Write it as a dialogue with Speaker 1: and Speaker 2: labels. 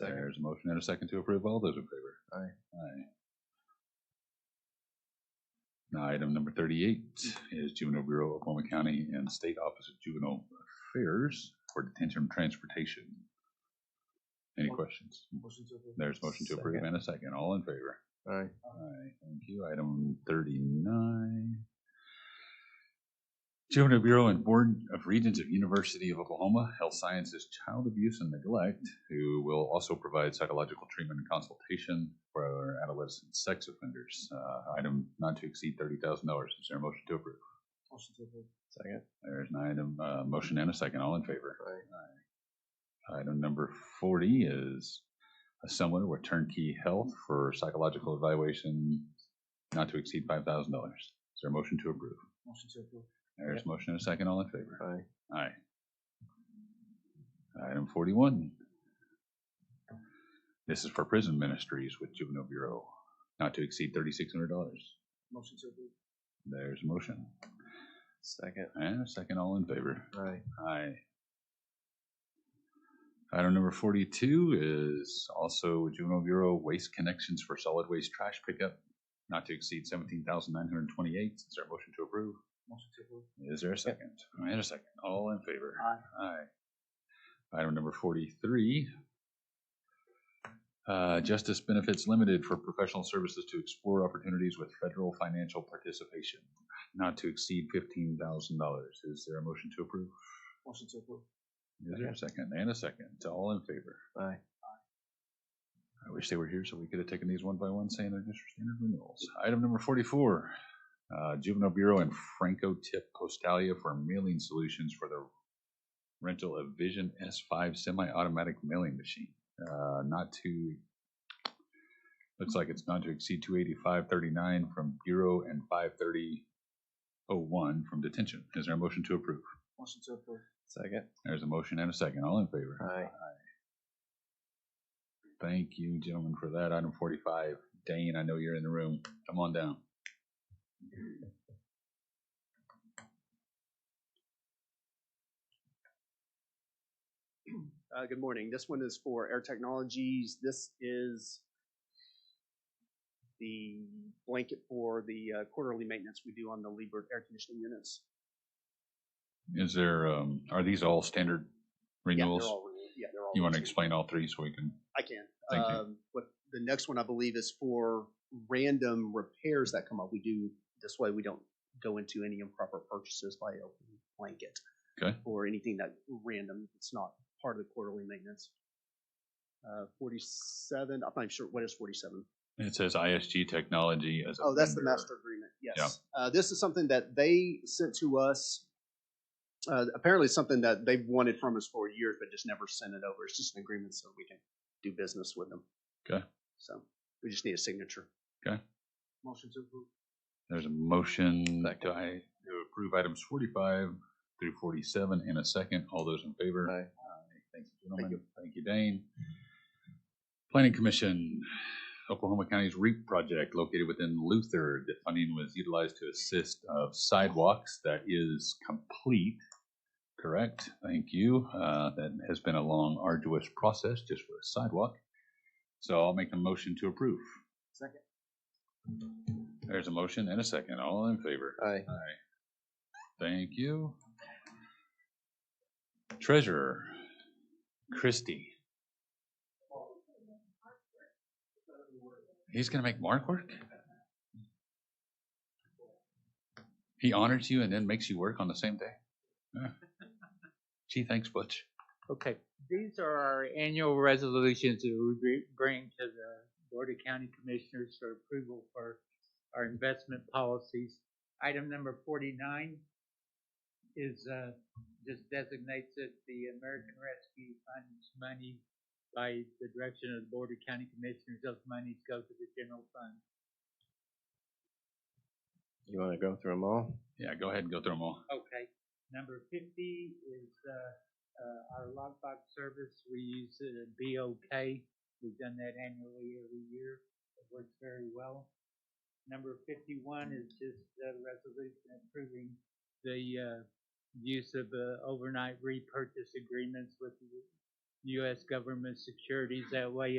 Speaker 1: There's a motion and a second to approve. All those in favor?
Speaker 2: Aye.
Speaker 1: Aye. Now, item number thirty-eight is Juvenile Bureau of Oklahoma County and State Office of Juvenile Affairs for Detention and Transportation. Any questions? There's motion to approve and a second. All in favor?
Speaker 2: Aye.
Speaker 1: Aye, thank you. Item thirty-nine. Juvenile Bureau and Board of Regents of University of Oklahoma Health Sciences Child Abuse and Neglect, who will also provide psychological treatment and consultation for adolescent sex offenders. Uh, item not to exceed thirty thousand dollars. Is there a motion to approve?
Speaker 2: Second.
Speaker 1: There's an item, uh, motion and a second. All in favor?
Speaker 2: Aye.
Speaker 1: Item number forty is a similar with turnkey health for psychological evaluation not to exceed five thousand dollars. Is there a motion to approve? There's a motion and a second, all in favor?
Speaker 2: Aye.
Speaker 1: Aye. Item forty-one. This is for prison ministries with juvenile bureau, not to exceed thirty-six hundred dollars. There's a motion
Speaker 2: Second.
Speaker 1: and a second, all in favor?
Speaker 2: Aye.
Speaker 1: Aye. Item number forty-two is also Juvenile Bureau Waste Connections for Solid Waste Trash Pickup, not to exceed seventeen thousand nine hundred and twenty-eight. Is there a motion to approve? Is there a second? And a second. All in favor? Aye. Item number forty-three. Uh, Justice Benefits Limited for professional services to explore opportunities with federal financial participation, not to exceed fifteen thousand dollars. Is there a motion to approve? Is there a second? And a second. All in favor?
Speaker 2: Aye.
Speaker 1: I wish they were here so we could have taken these one by one, saying they're just standard renewals. Item number forty-four, uh, Juvenile Bureau and Franco Tip Postalia for mailing solutions for the rental of Vision S five semi-automatic mailing machine. Uh, not to, looks like it's not to exceed two eighty-five thirty-nine from Bureau and five thirty oh one from detention. Is there a motion to approve?
Speaker 2: Second.
Speaker 1: There's a motion and a second. All in favor?
Speaker 2: Aye.
Speaker 1: Thank you, gentlemen, for that. Item forty-five, Dane, I know you're in the room. Come on down.
Speaker 3: Uh, good morning. This one is for Air Technologies. This is the blanket for the uh, quarterly maintenance we do on the Liebert air conditioning units.
Speaker 1: Is there, um, are these all standard renewals?
Speaker 3: Yeah, they're all renewed. Yeah, they're all
Speaker 1: You want to
Speaker 3: renewed.
Speaker 1: explain all three so we can,
Speaker 3: I can.
Speaker 1: Thank you.
Speaker 3: Um, But the next one, I believe, is for random repairs that come up. We do, this way we don't go into any improper purchases by opening blanket.
Speaker 1: Okay.
Speaker 3: Or anything that random, it's not part of the quarterly maintenance. Uh, forty-seven, I'm not even sure, what is forty-seven?
Speaker 1: it says ISG technology as a.
Speaker 3: Oh, that's the
Speaker 1: vendor.
Speaker 3: master agreement, yes. Uh, this is something that they sent to us. Uh, apparently something that they've wanted from us for years, but just never sent it over. It's just an agreement so we can do business with them.
Speaker 1: Okay.
Speaker 3: So we just need a signature.
Speaker 1: Okay.
Speaker 3: Motion to approve.
Speaker 1: There's a motion to I, to approve items forty-five through forty-seven in a second. All those in favor?
Speaker 2: Aye.
Speaker 1: Thank you, gentlemen. Thank you, Dane. Planning Commission, Oklahoma County's REAP project located within Luther. The funding was utilized to assist of sidewalks. That is complete, correct? Thank you. Uh, That has been a long arduous process just for a sidewalk. So I'll make a motion to approve.
Speaker 3: Second.
Speaker 1: There's a motion and a second. All in favor?
Speaker 2: Aye.
Speaker 1: Thank you. Treasurer, Christie. He's gonna make Mark work? He honors you and then makes you work on the same day? Huh. Gee, thanks, Butch.
Speaker 4: Okay, these are our annual resolutions that we bring- bring to the Board of County Commissioners for approval for our investment policies. Item number forty-nine is, uh, just designates that the American Rescue Fund's money by the direction of the Board of County Commissioners, those monies go to the general fund.
Speaker 2: You want to go through them all?
Speaker 1: Yeah, go ahead and go through them all.
Speaker 4: Okay. Number fifty is, uh, uh, our lockbox service. We use uh, it at BOK. We've done that annually every year. It works very well. Number fifty-one is just a resolution approving the, uh, use of, uh, overnight repurchase agreements with the U.S. government securities. That way